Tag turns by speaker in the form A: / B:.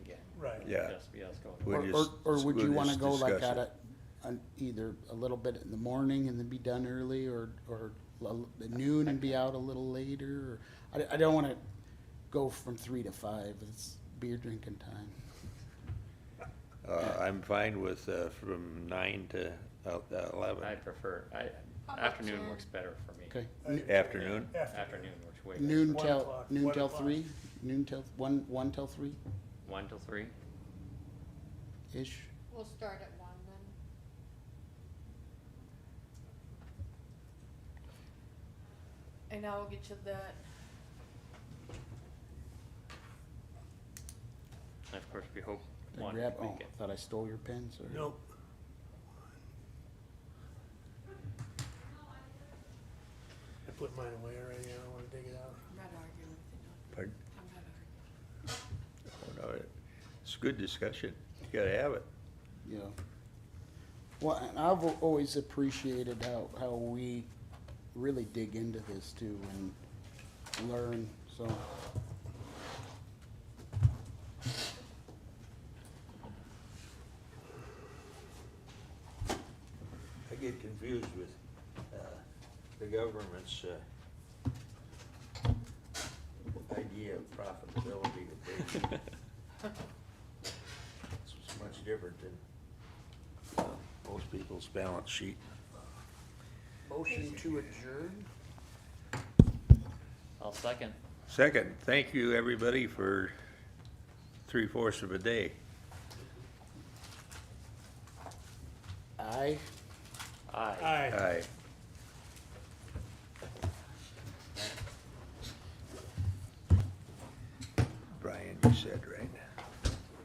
A: it
B: Yeah.
A: has to be us going.
B: We'll
C: Or, or-
B: just-
C: or would
B: we'll
C: you wanna
B: just
C: go like
B: discuss
C: at
B: it.
C: it, on either a little bit in the morning and then be done early, or, or l- noon and be out a little later? or- I, I don't wanna go from three to five, it's beer drinking time.
B: Uh, I'm fine with, uh, from nine to uh, uh,
A: "Oh, I
B: eleven,
A: prefer, I,
D: about
A: afternoon
D: ten?
A: works better for me.
C: Okay,
B: afternoon,
A: Yeah,
E: Uh, Afternoon.
A: Afternoon works way better.
C: noon
E: One
C: till,
E: o'clock,
C: noon
E: one
C: till
E: o'clock.
C: three, noon till, one, one till three-ish?
A: One till three?
D: We'll start at one then. And I will get you that,
A: And of course, we hope
C: Did I
A: one
C: grab, oh,
A: weekend.
C: thought I stole your pen, sorry.
E: Nope. I put mine away already, I don't wanna dig it out.
D: I'm not arguing with you,
B: pardon,
D: no, I'm not arguing.
B: oh, no, it's good discussion, you gotta have it.
C: Yeah. Well, and I've al- always appreciated how, how we really dig into this too and learn, so.
B: I get confused with, uh, the government's, uh, idea of profitability that they do. It's much different than uh, most people's balance sheet.
C: Motion to adjourn?
A: I'll second.
B: Second, thank you, everybody, for three-fourths of a day.
C: Aye.
A: Aye.
E: Aye.
B: Aye. Brian, you said, right?